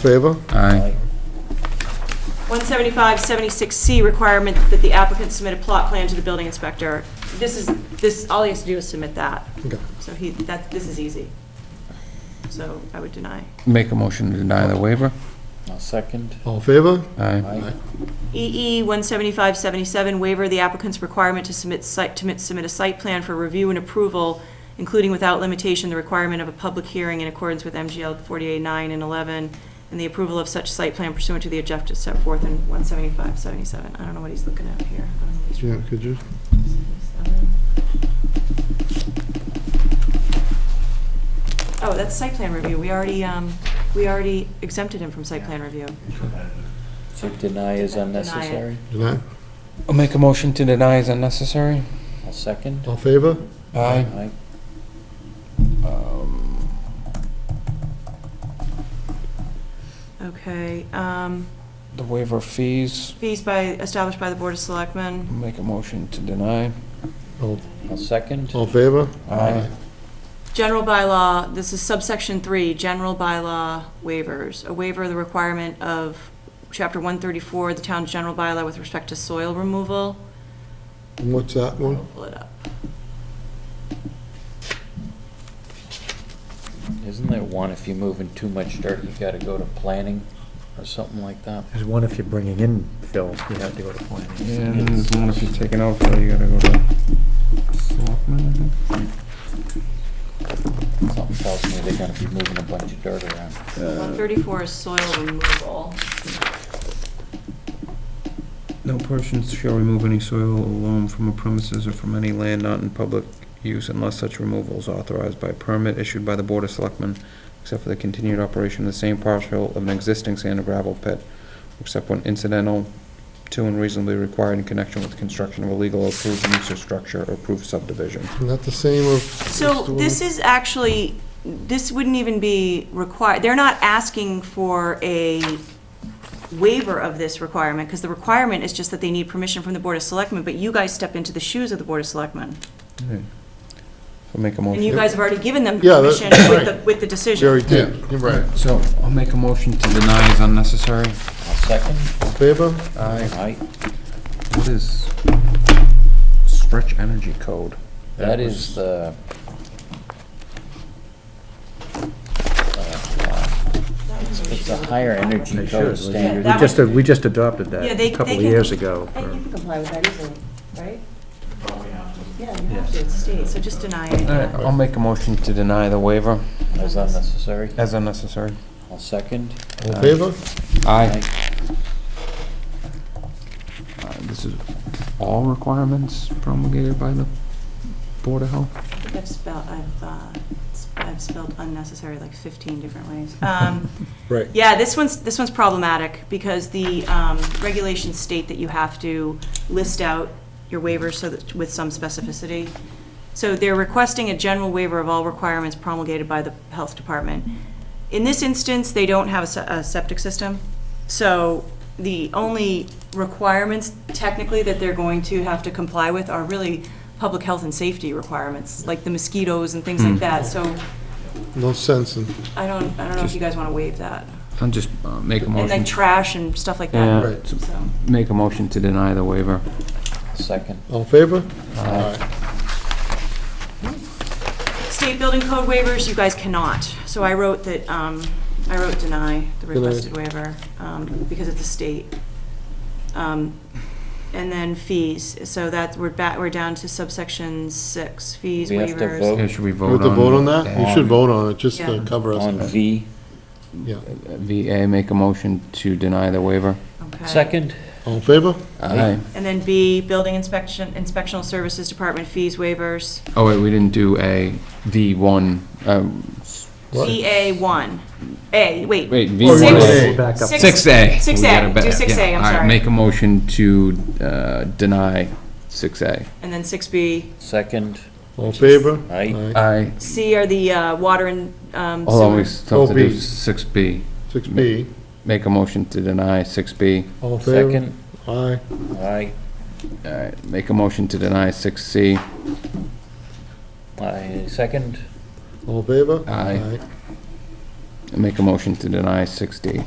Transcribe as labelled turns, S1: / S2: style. S1: Favor?
S2: Aye.
S3: 175-76C requirement that the applicant submit a plot plan to the building inspector. This is, this, all he has to do is submit that.
S1: Okay.
S3: So he, that, this is easy. So I would deny.
S2: Make a motion to deny the waiver?
S4: I'll second.
S1: All in favor?
S2: Aye.
S4: Aye.
S3: EE 175-77 waiver the applicant's requirement to submit site, to submit a site plan for review and approval, including without limitation the requirement of a public hearing in accordance with MGL 48-9 and 11, and the approval of such site plan pursuant to the objectives set forth in 175-77. I don't know what he's looking at here. I don't know what he's
S1: Yeah, could you?
S3: Oh, that's site plan review. We already, um, we already exempted him from site plan review.
S4: So deny is
S3: Deny it.
S4: unnecessary.
S1: Deny?
S2: Make a motion to deny is unnecessary?
S4: I'll second.
S1: All in favor?
S2: Aye. Um,
S4: Aye.
S3: Okay, um,
S2: The waiver of fees,
S3: fees by, established by the Board of Selectmen.
S2: make a motion to deny.
S1: All
S4: I'll second.
S1: all in favor?
S2: Aye.
S3: General bylaw, this is subsection three, general bylaw waivers. A waiver of the requirement of chapter one thirty-four, the town's general bylaw with respect to soil removal.
S1: And What's that one?
S3: I'll Pull it up.
S4: Isn't there one, if you're moving too much dirt, you gotta go to planning or something like that?
S5: There's one if you're bringing in fill, you have to go to planning.
S2: And there's one if you're taking out, so you gotta go to selectmen, I think.
S4: Something tells me they're gonna be moving a bunch of dirt around.
S3: One thirty-four is soil removal.
S2: No person shall remove any soil or loam from a premises or from any land not in public use unless such removal is authorized by permit issued by the Board of Selectmen, except for the continued operation of the same parcel of an existing sand and gravel pit, except when incidental to and reasonably required in connection with the construction of a legal approved use or structure or approved subdivision.
S1: Isn't that the same of?
S3: So this is actually, this wouldn't even be required, they're not asking for a waiver of this requirement, because the requirement is just that they need permission from the Board of Selectmen, but you guys step into the shoes of the Board of Selectmen.
S2: So make a
S3: And you
S2: motion.
S3: guys have already given them
S1: Yeah, that-
S3: permission with the,
S1: right.
S3: with the
S1: Jerry
S3: decision.
S1: did. You're right.
S2: So I'll make a motion to deny is unnecessary.
S4: I'll second.
S1: All in favor?
S2: Aye.
S4: Aye.
S2: What is stretch energy code?
S4: That is the. uh, It's a higher energy
S5: They should.
S4: code
S5: We-
S4: standard.
S3: that
S5: We just,
S3: would-
S5: we just adopted
S3: Yeah,
S5: that
S3: they-
S5: a couple
S3: they
S5: of
S3: can-
S5: years ago.
S6: I think you can comply with that easily, right? Yeah, you
S5: Yes.
S6: have
S3: It's state, so just deny it.
S2: All right, I'll make a motion to deny the waiver
S4: Is unnecessary.
S2: as unnecessary.
S4: I'll second.
S1: All in favor?
S2: Aye. Uh, This is all requirements promulgated by the Board of Health?
S3: I think I've spelled, I've, uh, s- I've spelled unnecessary like fifteen different ways. Um,
S1: Right.
S3: Yeah, this one's, this one's problematic, because the um, regulations state that you have to list out your waivers so that, with some specificity. So they're requesting a general waiver of all requirements promulgated by the health department. In this instance, they don't have a se- a septic system, so the only requirements technically that they're going to have to comply with are really public health and safety requirements, like the mosquitoes and things like that, so
S1: No sense in,
S3: I don't, I don't know if you guys want to waive that.
S2: I'll just uh, make a
S3: And like
S2: motion,
S3: trash and stuff like
S2: Yeah.
S3: that.
S1: right.
S3: So,
S2: make a motion to deny the waiver.
S4: Second.
S1: All in favor? Aye.
S3: State building code waivers, you guys cannot. So I wrote that, um, I wrote deny the
S1: Deny.
S3: requested waiver, um, because it's a state. Um, And then fees, so that, we're back, we're down to subsection six, fees,
S4: We have to
S3: waivers.
S4: vote.
S2: Yeah, should we
S1: You have
S2: vote
S1: to
S2: on?
S1: vote on that? You should vote on it, just to
S3: Yeah.
S1: cover us.
S4: On V.
S1: Yeah.
S2: VA, make a motion to deny the waiver.
S3: Okay.
S4: Second.
S1: All in favor?
S4: Aye.
S3: And then B, building inspection, inspectional services department fees waivers.
S2: Oh, wait, we didn't do a V1, um, s-
S1: What?
S3: EA one, A, wait.
S2: wait,
S1: Oh, you wanna
S2: V1.
S1: say-
S5: We're back up.
S3: Six-
S2: 6A.
S3: 6A,
S2: We gotta be-
S3: do 6A,
S2: yeah.
S3: I'm
S2: All right,
S3: sorry.
S2: make a motion to uh, deny 6A.
S3: And then six B.
S4: Second.
S1: All in favor?
S4: Aye.
S2: Aye.
S3: C are the, uh, water and, um,
S2: Hold on, we
S3: sewer.
S2: still have to do
S1: 4B.
S2: 6B.
S1: Six B.
S2: Make a motion to deny 6B.
S1: All in favor?
S4: Second.
S1: Aye.
S4: Aye.
S2: All right, make a motion to deny 6C.
S4: Aye. Second.
S1: All in favor?
S2: Aye. Make a motion to deny 6D.